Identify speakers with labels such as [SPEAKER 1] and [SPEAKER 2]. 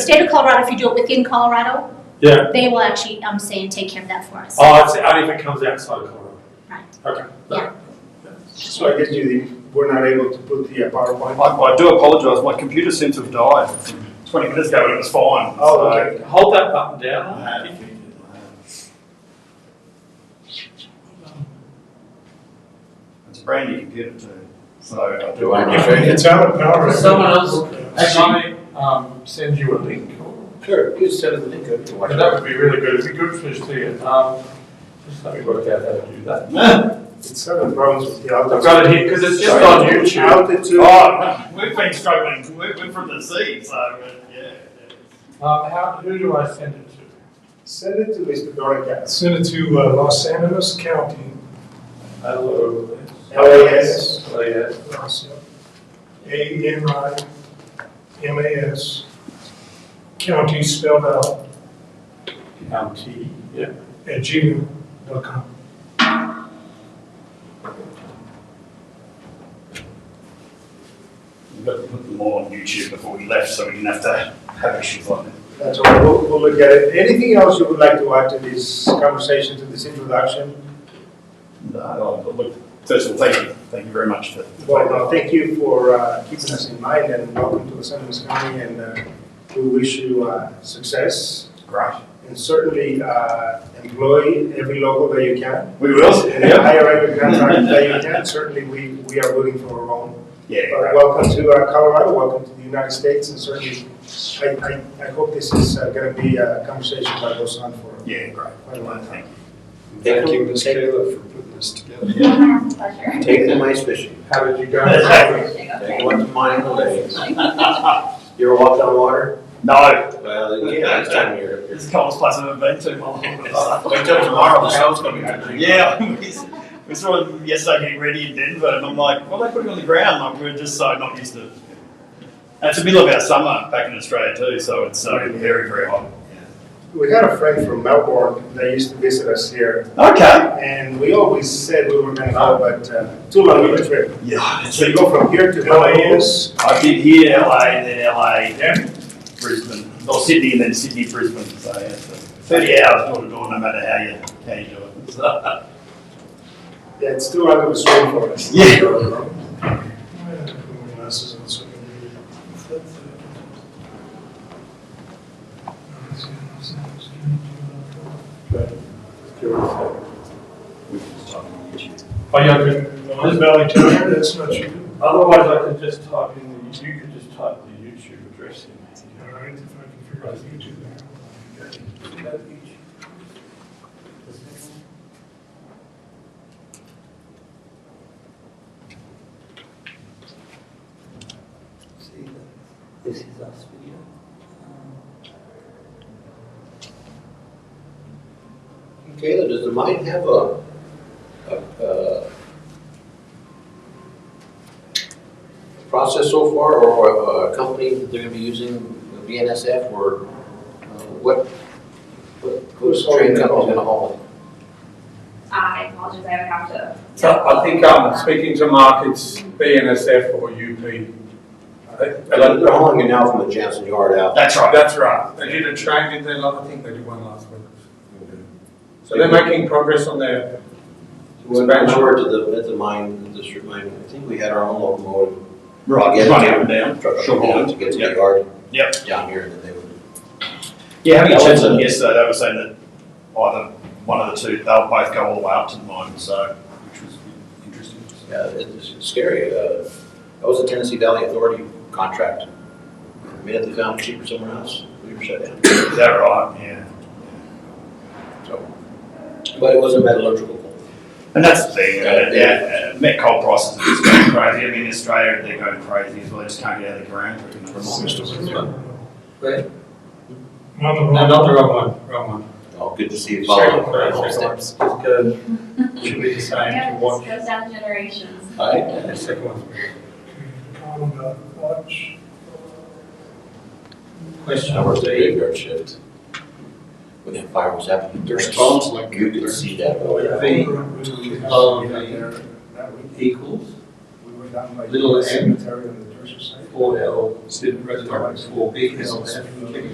[SPEAKER 1] State of Colorado, if you do it within Colorado,
[SPEAKER 2] Yeah.
[SPEAKER 1] they will actually, um, say and take care of that for us.
[SPEAKER 2] Oh, it's out if it comes outside of Colorado.
[SPEAKER 1] Right.
[SPEAKER 2] Okay.
[SPEAKER 1] Yeah.
[SPEAKER 3] So I guess you, we're not able to put the uh, PowerPoint.
[SPEAKER 4] I, I do apologise, my computer seems to have died. 20 minutes ago and it was fine.
[SPEAKER 3] Oh, okay.
[SPEAKER 2] Hold that button
[SPEAKER 5] Uh,
[SPEAKER 2] down.
[SPEAKER 4] It's a brand new computer too. So
[SPEAKER 6] Do I
[SPEAKER 3] If
[SPEAKER 6] know?
[SPEAKER 3] It's out of power.
[SPEAKER 5] Someone else, actually, um, send you a link,
[SPEAKER 6] Sure, you said it, they could.
[SPEAKER 5] Well, that would be really good, it'd be good for us to see it, um, just let me work out how to do that.
[SPEAKER 3] It's having problems with the altitude.
[SPEAKER 2] I've got it here because it's just on YouTube.
[SPEAKER 3] Altitude,
[SPEAKER 4] Oh, we've been struggling. We're, we're from the sea, so uh, yeah.
[SPEAKER 5] Um, how, who do I send it to?
[SPEAKER 3] send it to Mr. Dorica.
[SPEAKER 7] Send it to uh, Los Angeles County.
[SPEAKER 5] Hello.
[SPEAKER 3] LAS,
[SPEAKER 5] Oh, yes.
[SPEAKER 7] Los- A N I M A S. County spelled out
[SPEAKER 5] Um,
[SPEAKER 2] County, yeah.
[SPEAKER 7] at gmail.com.
[SPEAKER 4] We've got to put them all on YouTube before we left, so we didn't have to have issues like that.
[SPEAKER 3] that's all, we'll, we'll look at it. Anything else you would like to add to this conversation, to this introduction?
[SPEAKER 4] No, I'll- I'll look, first of all, thank you. Thank you very much for.
[SPEAKER 3] Well, no, thank you for uh, keeping us in mind and welcome to San Luis County and uh, we wish you uh, success
[SPEAKER 4] Great.
[SPEAKER 3] and certainly uh, employ every local that you can.
[SPEAKER 4] We will.
[SPEAKER 3] And hire every contractor that you can. Certainly, we, we are rooting for our own
[SPEAKER 4] Yeah.
[SPEAKER 3] Uh,
[SPEAKER 4] great.
[SPEAKER 3] Welcome to uh, Colorado, welcome to the United States, and certainly, I, I, I hope this is going to be a conversation that goes on for
[SPEAKER 4] Yeah, great.
[SPEAKER 3] quite a long time.
[SPEAKER 6] Thank you, Ms. Taylor, for putting this together. Take the mice fishing.
[SPEAKER 5] How did you go?
[SPEAKER 6] Take one to mine today. You ever walked on water?
[SPEAKER 4] No,
[SPEAKER 6] Well, yeah, it's time you're.
[SPEAKER 4] it's the coldest place I've ever been to. in my life.
[SPEAKER 6] Wait till tomorrow, the sun's gonna be.
[SPEAKER 4] Yeah, we s- we saw them yesterday getting ready in Denver, and I'm like, well, they put it on the ground. Like, we were just so not used to it. And it's the middle of our summer back in Australia, too, so it's uh, very, very hot.
[SPEAKER 3] We had a friend from Melbourne that used to visit us here,
[SPEAKER 4] Okay.
[SPEAKER 3] and we always said we were going to go, but uh, too long of a trip.
[SPEAKER 4] Yeah, it's
[SPEAKER 3] So you
[SPEAKER 4] a,
[SPEAKER 3] go from here to LAS,
[SPEAKER 4] I did here, LA, then LA, Brisbane, or Sydney, and then Sydney, Brisbane. So, yeah, so 30 hours door to door, no matter how you, how you do it. So,
[SPEAKER 3] yeah, it's too long of a swim for us.
[SPEAKER 4] Yeah.
[SPEAKER 7] I have to put my glasses on so I can read it.
[SPEAKER 4] we can just type in YouTube.
[SPEAKER 2] Oh, yeah, 'cause
[SPEAKER 7] Mon Valley Tire, that's not you.
[SPEAKER 2] otherwise I could just type in, the. you could just type the YouTube address in.
[SPEAKER 7] All right, if I can figure out YouTube there.
[SPEAKER 8] See, this is us video. Um,
[SPEAKER 6] Taylor, does the mine have a, a, uh, process so far, or a company that they're gonna be using, BNSF, or uh, what, what,
[SPEAKER 3] Who's
[SPEAKER 6] who's train
[SPEAKER 3] holding it
[SPEAKER 6] company's
[SPEAKER 3] all?
[SPEAKER 6] gonna haul
[SPEAKER 9] I apologize, I would have to.
[SPEAKER 5] So I think, um, speaking to Mark, it's BNSF or UP.
[SPEAKER 6] it? They're hauling it now from the Jansen yard out.
[SPEAKER 4] That's right.
[SPEAKER 5] That's right, they did a train, did they, I think they did one last week. So they're making progress on their,
[SPEAKER 6] When I were to the, at the mine, the district mine, I think we had our own locomotive.
[SPEAKER 4] Right,
[SPEAKER 6] Yeah.
[SPEAKER 4] running up and down.
[SPEAKER 6] Truck
[SPEAKER 4] Sure.
[SPEAKER 6] down to get to
[SPEAKER 4] Yep.
[SPEAKER 6] the yard.
[SPEAKER 4] Yep.
[SPEAKER 6] Down here, and then they would.
[SPEAKER 4] Yeah, having a
[SPEAKER 6] That
[SPEAKER 4] chat
[SPEAKER 6] was
[SPEAKER 4] to them
[SPEAKER 6] a-
[SPEAKER 4] yesterday, they were saying that either one of the two, they'll both go all the way up to the mine, so, which was interesting.
[SPEAKER 6] Yeah, it's scary. Uh, That was a Tennessee Valley Authority contract. The minute they found it cheaper somewhere else, we were shut down.
[SPEAKER 4] Is that right? Yeah.
[SPEAKER 6] So, But it was a metallurgical. coal.
[SPEAKER 4] And that's the thing,
[SPEAKER 6] Yeah.
[SPEAKER 4] uh, yeah, uh, met coal prices are just going crazy. I mean, in Australia, they're going crazy as well, they just can't get out of the ground.
[SPEAKER 6] Remind us of it.
[SPEAKER 7] I'm on the
[SPEAKER 5] no,
[SPEAKER 7] wrong-
[SPEAKER 5] not the wrong one, wrong one.
[SPEAKER 6] Oh, good to see you
[SPEAKER 5] Second
[SPEAKER 6] following.
[SPEAKER 5] class,
[SPEAKER 6] All
[SPEAKER 5] second class. Good. Should be the same to
[SPEAKER 9] Yeah,
[SPEAKER 5] watch.
[SPEAKER 9] this goes down generations.
[SPEAKER 6] right.
[SPEAKER 5] The second one's.
[SPEAKER 7] Colin dot Watch.
[SPEAKER 5] Question
[SPEAKER 6] I worked the
[SPEAKER 5] three.
[SPEAKER 6] graveyard shift. When that fire was happening.
[SPEAKER 8] There's tons like
[SPEAKER 6] You could see that.
[SPEAKER 3] Oh,
[SPEAKER 8] Oh, V
[SPEAKER 3] We
[SPEAKER 8] of
[SPEAKER 3] got
[SPEAKER 8] A
[SPEAKER 3] there that week.
[SPEAKER 8] equals
[SPEAKER 3] We were down by
[SPEAKER 8] Little
[SPEAKER 3] the
[SPEAKER 8] M.
[SPEAKER 3] cemetery on the church side.
[SPEAKER 8] four L, Sid Reddick, four big L, F,